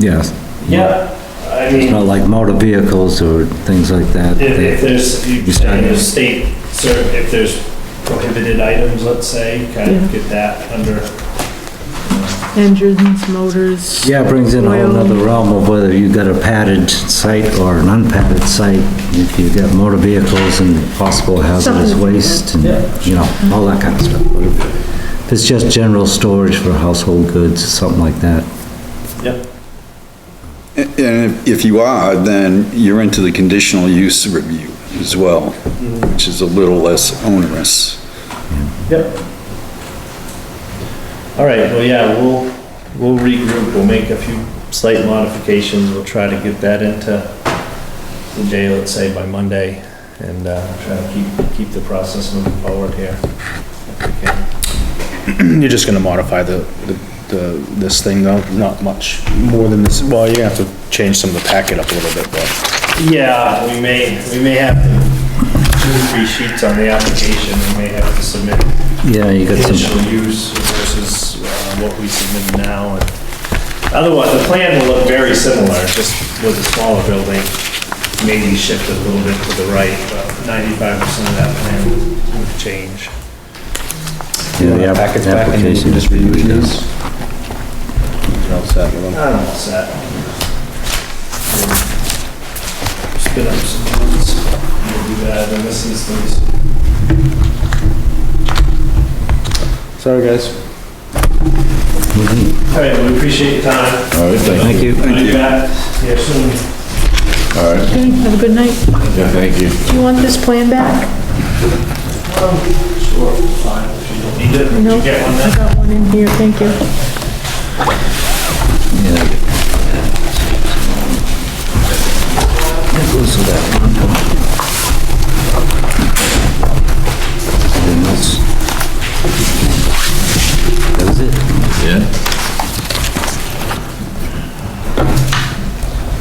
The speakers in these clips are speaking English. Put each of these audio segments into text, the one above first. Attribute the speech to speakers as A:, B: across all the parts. A: Yes,
B: Yeah, I mean,
A: not like motor vehicles or things like that.
B: if, if there's,
A: You
B: you're
A: start-
B: saying there's state, cer if there's prohibited items, let's say, kind of get that under,
C: engines, motors.
A: Yeah, it brings in a whole
C: Oil.
A: nother realm of whether you've got a padded site or an unpadded site. If you've got motor vehicles and possible hazardous
C: Something like that.
A: waste and,
B: Yeah.
A: you know, all that kind of stuff. But if- If it's just general storage for household goods, something like that.
B: yep.
D: And if- if you are, then you're into the conditional use review as well, which is a little less onerous.
B: Yep. All right, well, yeah, we'll, we'll regroup, we'll make a few slight modifications, we'll try to get that into the day, let's say by Monday, and, uh, try to keep, keep the process moving forward here. Okay.
E: You're just gonna modify the, the- the, this thing though, not much more than this, well, you're gonna have to change some of the packet up a little bit, but.
B: Yeah, we may, we may have two, or three sheets on the application, we may have to submit
A: Yeah, you got some,
B: initial use versus uh, what we submit now. and Otherwise, the plan will look very similar, just with a smaller building, maybe shifted a little bit to the right, but 95% of that plan would change.
A: yeah, the app-
E: Packets back and you
A: application
E: can
A: is
E: just
A: pretty
E: redo
A: good.
E: these. You're all set with them.
B: I'm all set. Spin up some notes, we'll do that in this instance.
E: Sorry, guys.
A: Mm-hmm.
B: All right, we appreciate your time.
F: All right, thank
A: Thank you.
B: I'll be back here soon.
F: you. All right,
C: Okay, have a good night.
F: yeah, thank you.
C: Do you want this plan back?
B: Sure, fine, if you don't need it,
C: No,
B: you get one then.
C: I got one in here, thank you.
A: Anything else? That was it.
F: Yeah.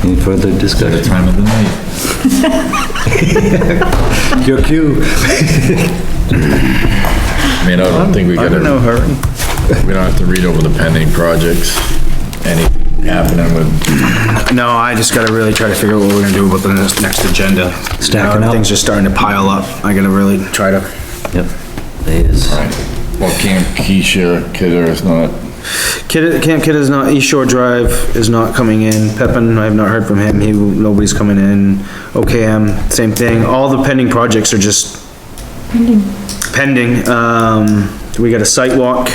A: Any further discussion?
F: The time of the night.
A: Your cue.
F: I mean, I don't think we gotta.
D: I'm in no hurry.
F: We don't have to read over the pending projects, anything happening with,
E: No, I just gotta really try to figure out what we're gonna do about the next, next agenda.
A: Stacking up.
E: Things are starting to pile up. I gotta really try to,
A: Yep. There is.
F: well, Camp Keisha, Kidder is not,
E: Kid, Camp Kid is not, East Shore Drive is not coming in. Pepin, I have not heard from him. He, nobody's coming in. OKM, same thing. All the pending projects are just pending, um, we got a site walk,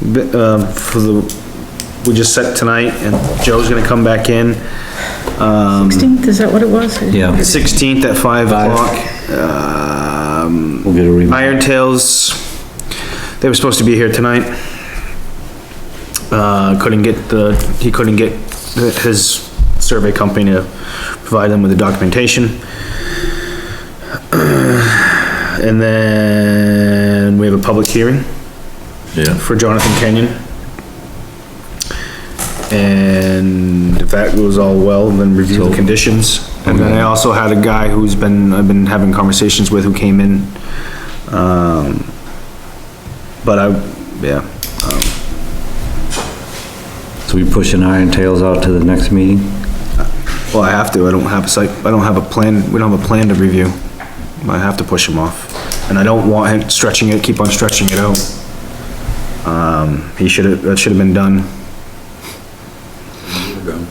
E: bi- um, for the, we just set tonight, and Joe's gonna come back in, um,
C: 16th, is that what it was?
A: Yeah,
E: sixteenth at five o'clock. Um,
A: we'll get a reminder.
E: Iron Tails, they were supposed to be here tonight. Uh, couldn't get the, he couldn't get the- his survey company to provide them with the documentation. And then we have a public hearing
F: yeah.
E: for Jonathan Kenyon. And if that goes all well, then review the conditions. And then I also had a guy who's been, I've been having conversations with who came in. Um, but I, yeah,
A: So we pushing Iron Tails out to the next meeting?
E: well, I have to, I don't have a site, I don't have a plan, we don't have a plan to review. I have to push him off. And I don't want him stretching it, keep on stretching it out. Um, he should have, that should have been done.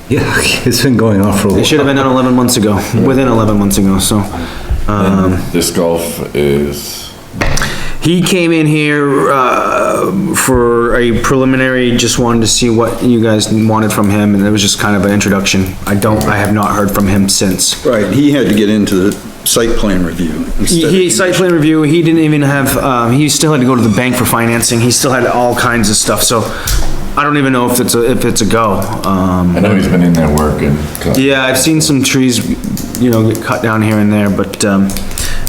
A: Yeah, it's been going on for a
E: It should have
A: while.
E: been done eleven months ago, within eleven months ago, so. um,
F: Disc golf is,
E: He came in here, uh, for a preliminary, just wanted to see what you guys wanted from him, and it was just kind of an introduction. I don't, I have not heard from him since.
D: Right, he had to get into the site plan review
E: He,
D: instead
E: he,
D: of,
E: site plan review, he didn't even have, um, he still had to go to the bank for financing, he still had all kinds of stuff, so I don't even know if it's a, if it's a go, um.
F: I know he's been in there working.
E: Yeah, I've seen some trees, you know, get cut down here and there, but, um,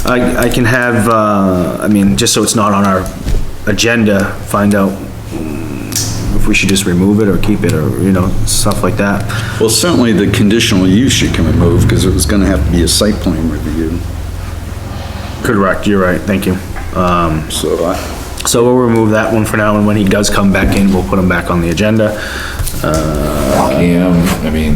E: I, I can have, uh, I mean, just so it's not on our agenda, find out if we should just remove it or keep it or, you know, stuff like that.
D: well, certainly the conditional use should come and move, because it was gonna have to be a site plan review,
E: Correct, you're right, thank you.
D: so I,
E: So we'll remove that one for now, and when he does come back in, we'll put him back on the agenda.
F: Cam, I mean,